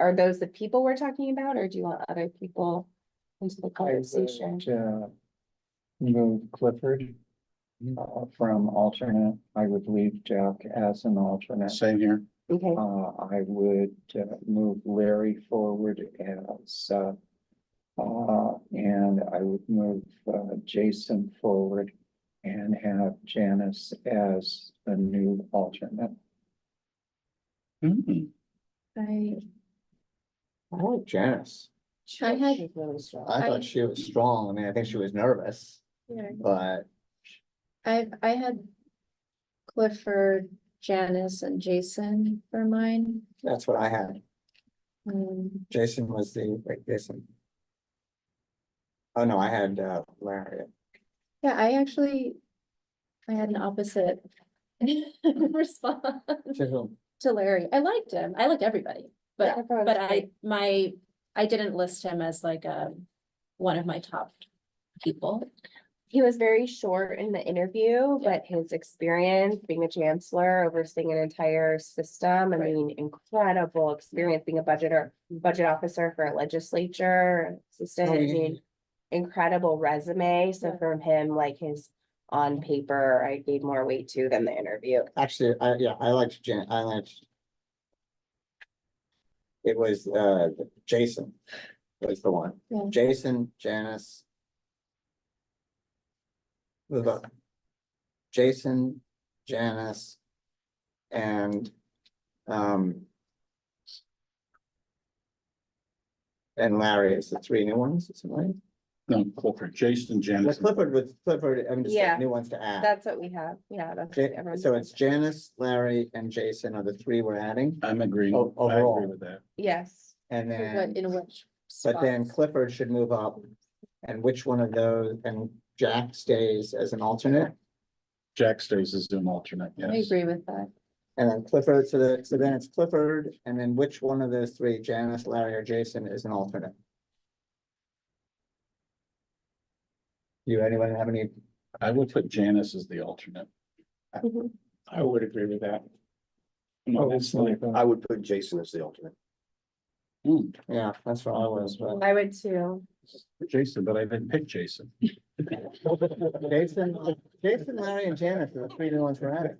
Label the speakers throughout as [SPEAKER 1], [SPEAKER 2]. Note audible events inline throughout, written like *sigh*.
[SPEAKER 1] Are those the people we're talking about, or do you want other people into the conversation?
[SPEAKER 2] To move Clifford uh, from alternate, I would leave Jack as an alternate.
[SPEAKER 3] Same here.
[SPEAKER 1] Okay,
[SPEAKER 2] Uh, I would uh, move Larry forward as, uh, uh, and I would move uh, Jason forward and have Janice as the new alternate.
[SPEAKER 3] Mhm.
[SPEAKER 4] I,
[SPEAKER 5] I like Janice.
[SPEAKER 4] I had,
[SPEAKER 5] She's really strong.
[SPEAKER 4] I-
[SPEAKER 5] I thought she was strong. I mean, I think she was nervous,
[SPEAKER 4] yeah,
[SPEAKER 5] but
[SPEAKER 4] I, I had Clifford, Janice and Jason for mine.
[SPEAKER 5] that's what I had.
[SPEAKER 4] Um,
[SPEAKER 5] Jason was the, wait, Jason. Oh, no, I had uh, Larry.
[SPEAKER 4] yeah, I actually, I had an opposite *laughs* response
[SPEAKER 5] To whom?
[SPEAKER 4] to Larry. I liked him. I liked everybody. But
[SPEAKER 1] Everyone's
[SPEAKER 4] But I,
[SPEAKER 1] great.
[SPEAKER 4] my, I didn't list him as like a, one of my top people.
[SPEAKER 1] He was very short in the interview,
[SPEAKER 4] Yeah.
[SPEAKER 1] but his experience being a chancellor, overseeing an entire system, I
[SPEAKER 4] Right.
[SPEAKER 1] mean, incredible experience being a budgeter, budget officer for a legislature, assistant, I
[SPEAKER 5] Oh, yeah.
[SPEAKER 1] mean, incredible resume. So
[SPEAKER 4] Yeah.
[SPEAKER 1] from him, like his on paper, I gave more weight to than the interview.
[SPEAKER 5] Actually, I, yeah, I liked Jan, I liked. It was uh, Jason was the one.
[SPEAKER 4] Yeah.
[SPEAKER 5] Jason, Janice. The vote. Jason, Janice. And, um. And Larry is the three new ones, is it right?
[SPEAKER 3] No, Clifford, Jason,
[SPEAKER 5] Well,
[SPEAKER 3] Janice.
[SPEAKER 5] Clifford with Clifford, I mean, just
[SPEAKER 1] Yeah.
[SPEAKER 5] like new ones to add.
[SPEAKER 1] That's what we have. Yeah, that's.
[SPEAKER 5] Ja-
[SPEAKER 1] everyone's-
[SPEAKER 5] So it's Janice, Larry, and Jason are the three we're adding,
[SPEAKER 3] I'm agreeing.
[SPEAKER 5] O-
[SPEAKER 3] I agree
[SPEAKER 5] overall.
[SPEAKER 3] with that.
[SPEAKER 1] Yes.
[SPEAKER 5] and
[SPEAKER 4] What,
[SPEAKER 5] then,
[SPEAKER 4] in which?
[SPEAKER 5] but then
[SPEAKER 4] spots.
[SPEAKER 5] Clifford should move up. And which one of those, and Jack stays as an alternate,
[SPEAKER 3] Jack stays as an alternate,
[SPEAKER 4] I
[SPEAKER 3] yes.
[SPEAKER 4] agree with that.
[SPEAKER 5] and then Clifford, so that, so then it's Clifford, and then which one of those three, Janice, Larry, or Jason is an alternate? You, anyone have any,
[SPEAKER 3] I would put Janice as the alternate.
[SPEAKER 1] Mhm.
[SPEAKER 6] I would agree with that.
[SPEAKER 2] Oh, that's like, uh,
[SPEAKER 7] I would put Jason as the alternate.
[SPEAKER 3] Hmm,
[SPEAKER 5] yeah, that's what I was, but
[SPEAKER 1] I would too.
[SPEAKER 3] Jason, but I didn't pick Jason.
[SPEAKER 5] Jason, Jason, Larry, and Janice are the three new ones we're adding.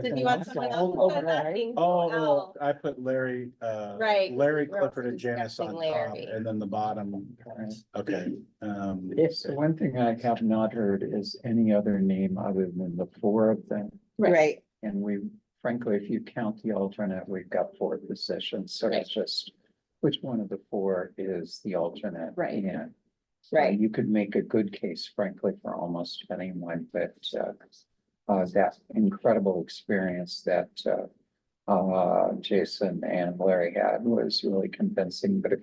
[SPEAKER 1] Did you want someone else?
[SPEAKER 5] Oh,
[SPEAKER 1] I'm not being-
[SPEAKER 3] Oh, I put Larry, uh,
[SPEAKER 1] Right,
[SPEAKER 5] Oh,
[SPEAKER 3] Larry
[SPEAKER 1] we're
[SPEAKER 3] Clifford and
[SPEAKER 1] discussing
[SPEAKER 3] Janice on top,
[SPEAKER 1] Larry.
[SPEAKER 3] and then the bottom, okay. Um,
[SPEAKER 2] Yes, the one thing I have not heard is any other name other than the four of them.
[SPEAKER 4] Right.
[SPEAKER 1] Right.
[SPEAKER 2] And we, frankly, if you count the alternate, we've got four positions, so
[SPEAKER 4] Right.
[SPEAKER 2] it's just which one of the four is the alternate?
[SPEAKER 4] Right.
[SPEAKER 2] Yeah.
[SPEAKER 1] Right.
[SPEAKER 2] You could make a good case, frankly, for almost anyone, but uh, uh, that incredible experience that uh, uh, Jason and Larry had was really convincing, but if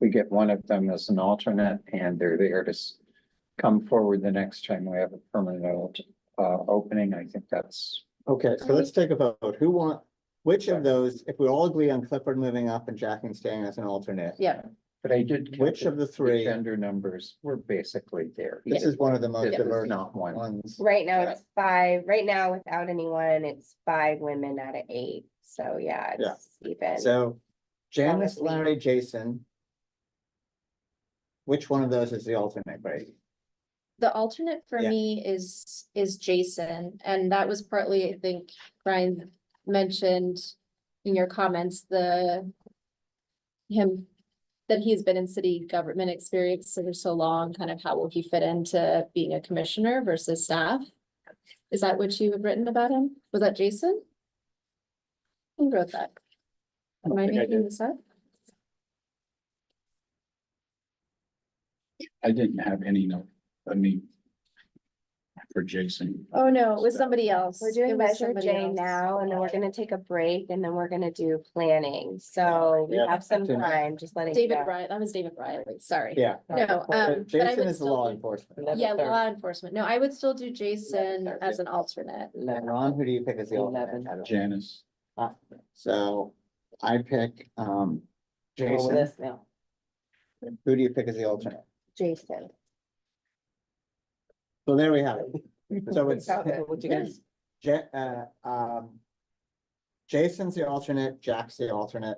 [SPEAKER 2] we get one of them as an alternate and they're there to s- come forward the next time we have a permanent alt- uh, opening, I think that's
[SPEAKER 5] Okay, so let's take a vote. Who want, which of those, if we all agree on Clifford moving up and Jacking staying as an alternate?
[SPEAKER 4] Yeah,
[SPEAKER 2] But I did. count
[SPEAKER 5] Which of the three,
[SPEAKER 2] Gender numbers were basically there.
[SPEAKER 5] this is one of the most
[SPEAKER 2] This is
[SPEAKER 5] diverse
[SPEAKER 2] not one.
[SPEAKER 5] ones.
[SPEAKER 1] Right now
[SPEAKER 5] Yeah.
[SPEAKER 1] it's five, right now without anyone, it's five women out of eight, so yeah,
[SPEAKER 5] Yeah.
[SPEAKER 1] it's even.
[SPEAKER 5] So Janice, Larry, Jason. Which one of those is the alternate, Greg?
[SPEAKER 4] the alternate for
[SPEAKER 5] Yeah.
[SPEAKER 4] me is, is Jason, and that was partly, I think, Brian mentioned in your comments, the him, that he's been in city government experience for so long, kind of how will he fit into being a commissioner versus staff? Is that what you had written about him? Was that Jason? Who wrote that? Am I
[SPEAKER 6] think I
[SPEAKER 4] making
[SPEAKER 6] did.
[SPEAKER 4] this up?
[SPEAKER 3] I didn't have any note, I mean. For Jason.
[SPEAKER 4] Oh, no, it was somebody else.
[SPEAKER 1] We're
[SPEAKER 4] It
[SPEAKER 1] doing
[SPEAKER 4] was
[SPEAKER 1] Measure
[SPEAKER 4] somebody
[SPEAKER 1] J
[SPEAKER 4] else.
[SPEAKER 1] now, and then we're gonna take a break, and then we're gonna do planning, so we
[SPEAKER 5] Yeah,
[SPEAKER 1] have some
[SPEAKER 5] that's it.
[SPEAKER 1] time, just letting.
[SPEAKER 4] David Riley, that was David Riley, sorry.
[SPEAKER 5] Yeah.
[SPEAKER 4] No, um, but I
[SPEAKER 5] Jason
[SPEAKER 4] would
[SPEAKER 5] is the
[SPEAKER 4] still,
[SPEAKER 5] law
[SPEAKER 4] do-
[SPEAKER 5] enforcement.
[SPEAKER 2] Eleven
[SPEAKER 4] yeah,
[SPEAKER 2] thirty.
[SPEAKER 4] law enforcement. No, I would still do Jason
[SPEAKER 2] thirty.
[SPEAKER 4] as an alternate.
[SPEAKER 5] And Ron, who do you pick as the alternate?
[SPEAKER 2] Eleven.
[SPEAKER 5] I don't-
[SPEAKER 3] Janice,
[SPEAKER 5] So I pick, um, Jason.
[SPEAKER 1] now.
[SPEAKER 5] Who do you pick as the alternate?
[SPEAKER 1] Jason.
[SPEAKER 5] So there we have it. So it's.
[SPEAKER 1] Would you guys-
[SPEAKER 5] Ja- uh, um. Jason's the alternate, Jack's the alternate,